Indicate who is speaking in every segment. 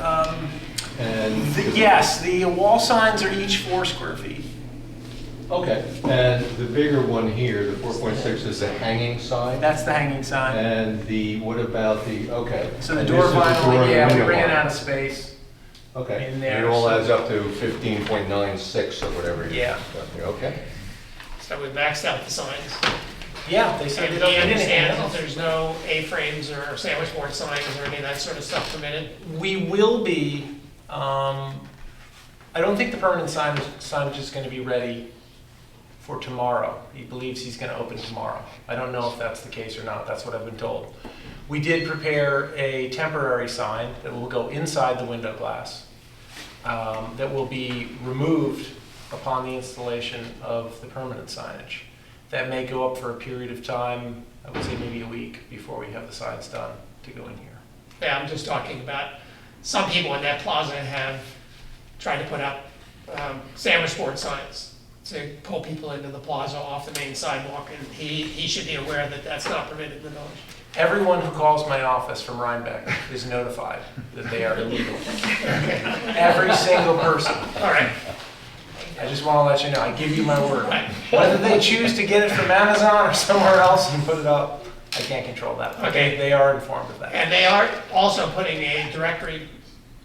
Speaker 1: Um, The- Yes, the wall signs are each four square feet.
Speaker 2: Okay, and the bigger one here, the 4.6, is the hanging sign?
Speaker 1: That's the hanging sign.
Speaker 2: And the, what about the, okay.
Speaker 1: So the
Speaker 2: and
Speaker 1: door
Speaker 2: this is door
Speaker 1: vinyl,
Speaker 2: and
Speaker 1: yeah, we
Speaker 2: window
Speaker 1: bring it
Speaker 2: vinyl.
Speaker 1: out of space.
Speaker 2: Okay,
Speaker 1: in
Speaker 2: and
Speaker 1: there,
Speaker 2: it all
Speaker 1: so-
Speaker 2: adds up to 15.96 or whatever. it is.
Speaker 1: Yeah.
Speaker 2: Okay.
Speaker 3: So we maxed out the signs.
Speaker 1: Yeah, they said
Speaker 3: And
Speaker 1: they
Speaker 3: we
Speaker 1: don't need anything
Speaker 3: understand that
Speaker 1: else.
Speaker 3: there's no A-frames or sandwich board signs or any of that sort of stuff permitted.
Speaker 1: We will be, um, I don't think the permanent sign, signage is gonna be ready for tomorrow. He believes he's gonna open tomorrow. I don't know if that's the case or not, that's what I've been told. We did prepare a temporary sign that will go inside the window glass, um, that will be removed upon the installation of the permanent signage. That may go up for a period of time, I would say maybe a week, before we have the signs done to go in here.
Speaker 3: Yeah, I'm just talking about, some people in that plaza have tried to put up um, sandwich board signs to pull people into the plaza off the main sidewalk, and he, he should be aware that that's not permitted in the village.
Speaker 1: Everyone who calls my office from Rhinebeck is notified that they are illegal. Every single person.
Speaker 3: All right,
Speaker 1: I just want to let you know, I give you my word. Whether they choose to get it from Amazon or somewhere else and put it up, I can't control that. But they-
Speaker 3: Okay.
Speaker 1: They are informed of that.
Speaker 3: and they are also putting a directory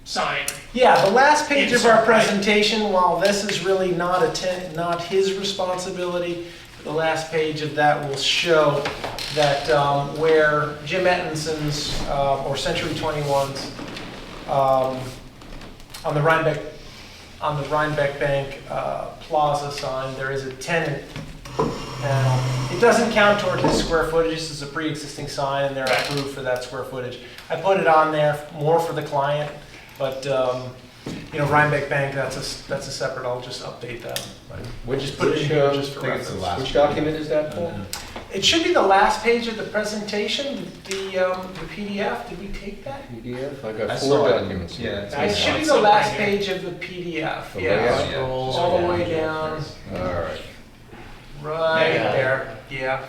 Speaker 3: sign,
Speaker 1: Yeah, the last page of our
Speaker 3: Insert, right.
Speaker 1: presentation, while this is really not a, ten- not his responsibility, the last page of that will show that um, where Jim Ettinson's, uh, or Century 21's, um, on the Rhinebeck, on the Rhinebeck Bank uh, Plaza sign, there is a tenant panel. It doesn't count toward his square footage, this is a pre-existing sign, and they're
Speaker 3: Right.
Speaker 1: approved for that square footage. I put it on there more for the client, but, um, you know, Rhinebeck Bank, that's a, s- that's a separate, I'll just update that.
Speaker 2: Which,
Speaker 1: Just put it in
Speaker 2: which,
Speaker 1: here
Speaker 2: uh,
Speaker 1: just for
Speaker 2: I think it's the
Speaker 1: reference.
Speaker 2: last- which document is that, Paul?
Speaker 1: It should be the last page of the presentation, the, um, the PDF, did we take that?
Speaker 2: PDF? I
Speaker 4: I
Speaker 2: got
Speaker 4: saw
Speaker 2: four
Speaker 4: it.
Speaker 2: documents. here.
Speaker 4: Yeah, it's
Speaker 1: It should be the last page of the PDF,
Speaker 2: The
Speaker 1: yeah,
Speaker 2: layout?
Speaker 1: scroll all the way down,
Speaker 2: All right,
Speaker 1: right
Speaker 3: Yeah.
Speaker 1: there, yeah,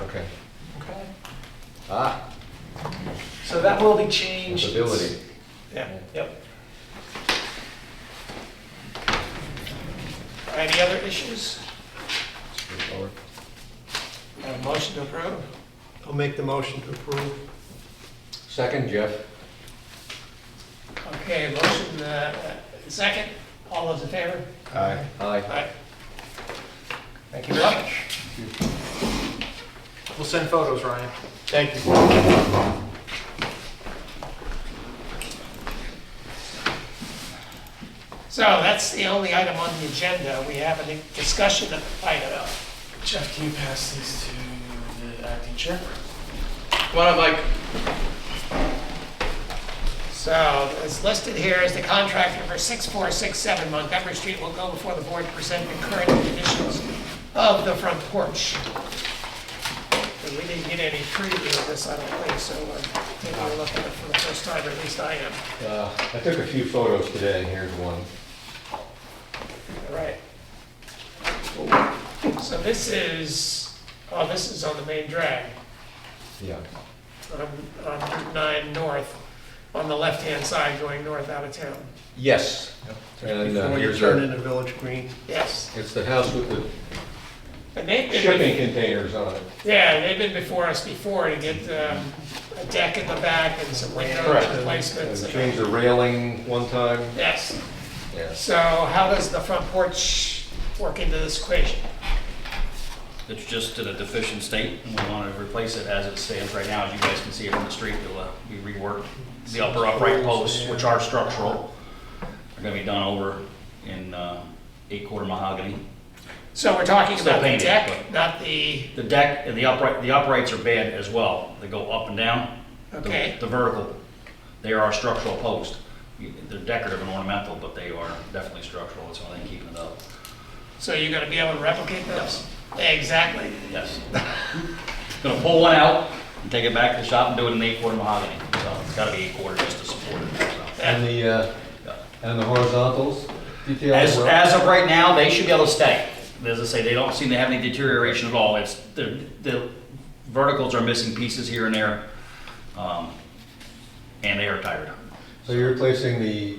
Speaker 2: okay.
Speaker 1: okay.
Speaker 2: Ah,
Speaker 1: So that will be changed.
Speaker 2: ability.
Speaker 3: yeah.
Speaker 1: Yep.
Speaker 3: Any other issues? Have a motion to approve?
Speaker 5: I'll make the motion to approve.
Speaker 2: Second, Jeff?
Speaker 3: Okay, motion, uh, second, all those in favor?
Speaker 4: Aye.
Speaker 3: All
Speaker 2: Aye.
Speaker 3: right,
Speaker 1: Thank you very much. We'll send photos, Ryan.
Speaker 5: Thank you.
Speaker 3: so that's the only item on the agenda, we have a discussion item.
Speaker 6: Jeff, can you pass these to
Speaker 1: Uh,
Speaker 6: the uh, acting chair?
Speaker 3: So it's listed here as the contractor for 6467 Montgomery Street will go before the board to present the current conditions of the front porch. And we didn't get any preview of this, I don't think, so I'm taking a look at it for the first time, or at least I am.
Speaker 2: Uh, I took a few photos today, and here's one.
Speaker 3: All right. So this is, oh, this is on the main drag.
Speaker 2: Yeah.
Speaker 3: on on Route 9 north, on the left-hand side going north out of town.
Speaker 2: Yes. And uh,
Speaker 5: Before you
Speaker 2: here's
Speaker 5: turn
Speaker 2: our,
Speaker 5: into Village Green.
Speaker 3: Yes.
Speaker 2: it's the house with the
Speaker 3: And they've
Speaker 2: shipping
Speaker 3: been,
Speaker 2: containers on it.
Speaker 3: yeah, they've been before us before to get um, a deck in the back and some window
Speaker 2: Correct.
Speaker 3: replacements.
Speaker 2: And
Speaker 3: and-
Speaker 2: Changed the railing one time.
Speaker 3: Yes.
Speaker 2: Yes.
Speaker 3: So how does the front porch work into this equation?
Speaker 7: It's just in a deficient state, and we want to replace it as it stands right now. As you guys can see it from the street, it'll uh, be reworked. The upper upright posts, which are structural, are going to be done over in uh, eight-quarter mahogany.
Speaker 3: So we're talking
Speaker 7: Still
Speaker 3: about the
Speaker 7: painted,
Speaker 3: deck, not the,
Speaker 7: The deck and the upright, the uprights are bad as well. They go up and down. The-
Speaker 3: Okay.
Speaker 7: The vertical, they are structural posts. They're decorative and ornamental, but they are definitely structural. That's why they keep it up.
Speaker 3: so you're gonna be able to replicate those? Exactly.
Speaker 7: Yes. Gonna pull one out and take it back to the shop and do it in eight quarter mahogany. So it's gotta be eight quarter just to support it. so.
Speaker 2: And the, uh, and the horizontals detail as
Speaker 7: As,
Speaker 2: well?
Speaker 7: as of right now, they should be able to stay. As I say, they don't seem to have any deterioration at all. It's, the, the verticals are missing pieces here and there. um, And they are tired.
Speaker 2: So you're replacing the